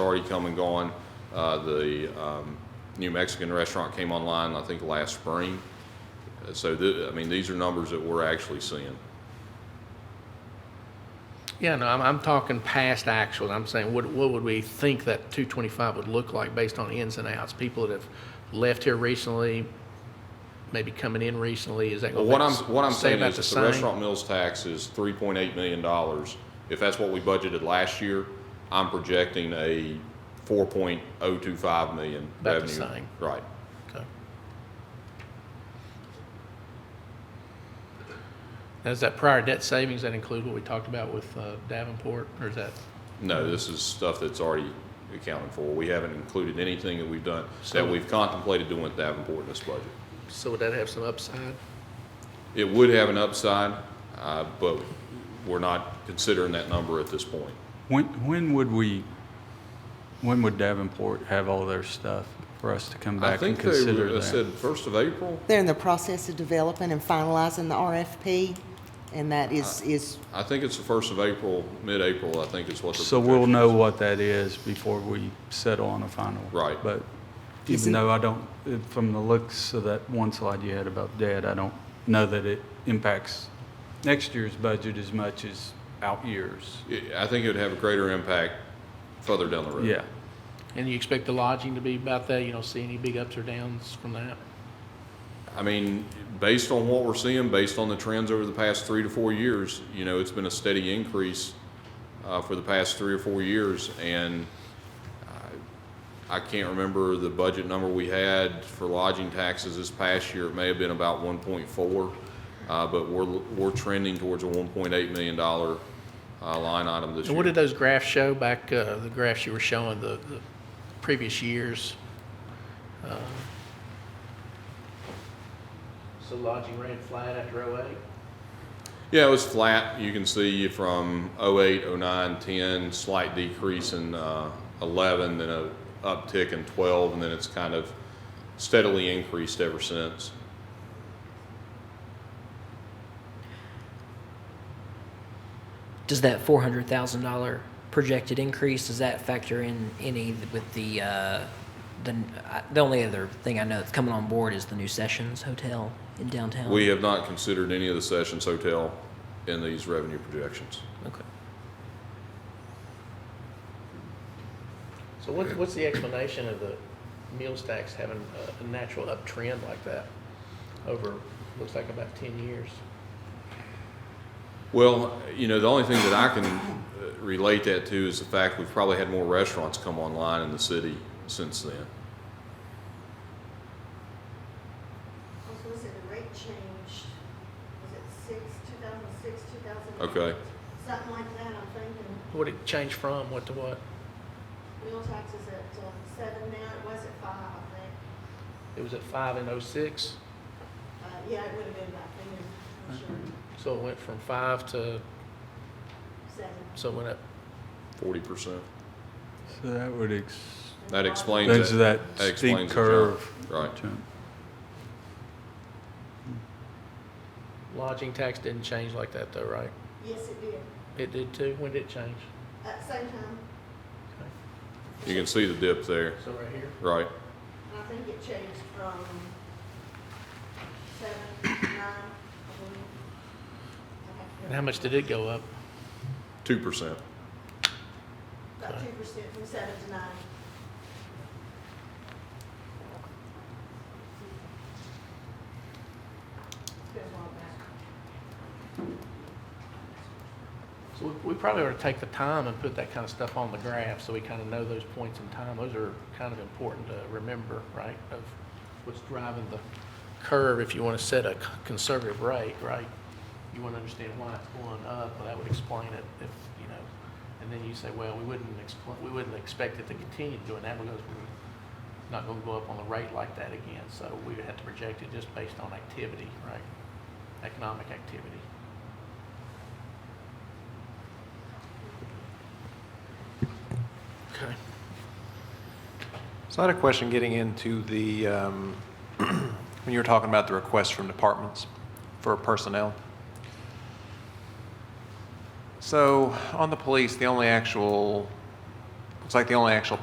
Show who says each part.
Speaker 1: already come and gone. Uh, The um, New Mexican restaurant came online, I think, last spring. Uh, So, the- I mean, these are numbers that we're actually seeing.
Speaker 2: Yeah, no, I'm, I'm talking past actuals. I'm saying, what, what would we think that two twenty-five would look like based on ins and outs? People that have left here recently, maybe coming in recently, is that
Speaker 1: Well,
Speaker 2: going
Speaker 1: what I'm,
Speaker 2: to
Speaker 1: what I'm
Speaker 2: say
Speaker 1: saying
Speaker 2: about
Speaker 1: is,
Speaker 2: the
Speaker 1: that the
Speaker 2: same?
Speaker 1: restaurant mills tax is three point eight million dollars. If that's what we budgeted last year, I'm projecting a four point oh two five million
Speaker 2: About the
Speaker 1: revenue.
Speaker 2: same.
Speaker 1: Right.
Speaker 2: Okay. Now, is that prior debt savings, that include what we talked about with uh, Davenport, or is that?
Speaker 1: No, this is stuff that's already accounted for. We haven't included anything that we've done,
Speaker 2: So-
Speaker 1: that we've contemplated doing with Davenport in this budget.
Speaker 2: So would that have some upside?
Speaker 1: It would have an upside, uh, but we're not considering that number at this point.
Speaker 3: When, when would we, when would Davenport have all their stuff for us to come
Speaker 1: I
Speaker 3: back and
Speaker 1: think they
Speaker 3: consider
Speaker 1: were- they said
Speaker 3: that?
Speaker 1: first of April.
Speaker 4: They're in the process of developing and finalizing the RFP, and that is, is,
Speaker 1: I think it's the first of April, mid-April, I think is what the.
Speaker 3: So we'll
Speaker 1: projection is.
Speaker 3: know what that is before we settle on a final.
Speaker 1: Right.
Speaker 3: But even
Speaker 4: Isn't-
Speaker 3: though I don't, uh, from the looks of that one slide you had about debt, I don't know that it impacts next year's budget as much as out years.
Speaker 1: It- I think it would have a greater impact further down the road.
Speaker 3: Yeah.
Speaker 2: And you expect the lodging to be about that? You don't see any big ups or downs from that?
Speaker 1: I mean, based on what we're seeing, based on the trends over the past three to four years, you know, it's been a steady increase uh, for the past three or four years, and uh, I, I can't remember the budget number we had for lodging taxes this past year. It may have been about one point four, uh, but we're we're trending towards a one point eight million dollar uh, line item this
Speaker 2: And
Speaker 1: year.
Speaker 2: what did those graphs show back, uh, the graphs you were showing, the, the previous years? Uh, So lodging ran flat after oh eight?
Speaker 1: Yeah, it was flat. You can see from 08, 09, 10, slight decrease in uh, 11, then a uptick in 12, and then it's kind of steadily increased ever since.
Speaker 5: Does that four hundred thousand dollar projected increase, does that factor in any with the, uh, the, I- the only other thing I know that's coming on board is the new Sessions Hotel in downtown?
Speaker 1: We have not considered any of the Sessions Hotel in these revenue projections.
Speaker 5: Okay.
Speaker 2: So what, what's the explanation of the meals tax having a, a natural uptrend like that over, looks like about ten years?
Speaker 1: Well, you know, the only thing that I can uh, relate that to is the fact we've probably had more restaurants come online in the city since then.
Speaker 6: Also, was it a rate change? Was it six, two thousand six, two thousand eight?
Speaker 1: Okay.
Speaker 6: Something like that, I'm thinking.
Speaker 2: What it changed from, what to what?
Speaker 6: Wheel tax is at uh, seven now, it was at five, I think.
Speaker 2: It was at five in oh six,
Speaker 6: Uh, yeah, it would have been about then, I'm sure,
Speaker 2: so it went from five to,
Speaker 6: seven.
Speaker 2: so it went up
Speaker 1: 40%.
Speaker 3: So that would ex,
Speaker 1: That explains
Speaker 3: that's
Speaker 1: it.
Speaker 3: that
Speaker 1: That
Speaker 3: steep
Speaker 1: explains the jump.
Speaker 3: curve.
Speaker 1: Right.
Speaker 3: jump.
Speaker 2: Lodging tax didn't change like that though, right?
Speaker 6: Yes, it did,
Speaker 2: It did too? When did it change?
Speaker 6: at the same time,
Speaker 2: Okay.
Speaker 1: You can see the dip there,
Speaker 2: So right here?
Speaker 1: right?
Speaker 6: and I think it changed from seven, nine, I believe. I have to-
Speaker 2: And how much did it go up?
Speaker 1: 2%.
Speaker 6: About two percent from seven to nine. It's been a while back.
Speaker 2: So we- we probably ought to take the time and put that kind of stuff on the graph, so we kind of know those points in time. Those are kind of important to remember, right, of what's driving the curve if you want to set a c- conservative rate, right? You want to understand why it's going up, well, that would explain it if, you know, and then you say, well, we wouldn't expl- we wouldn't expect it to continue doing that because we're not going to go up on the rate like that again. So we would have to project it just based on activity, right? Economic activity. Okay.
Speaker 7: So I had a question getting into the, um, when you were talking about the requests from departments for personnel. So on the police, the only actual, it's like the only actual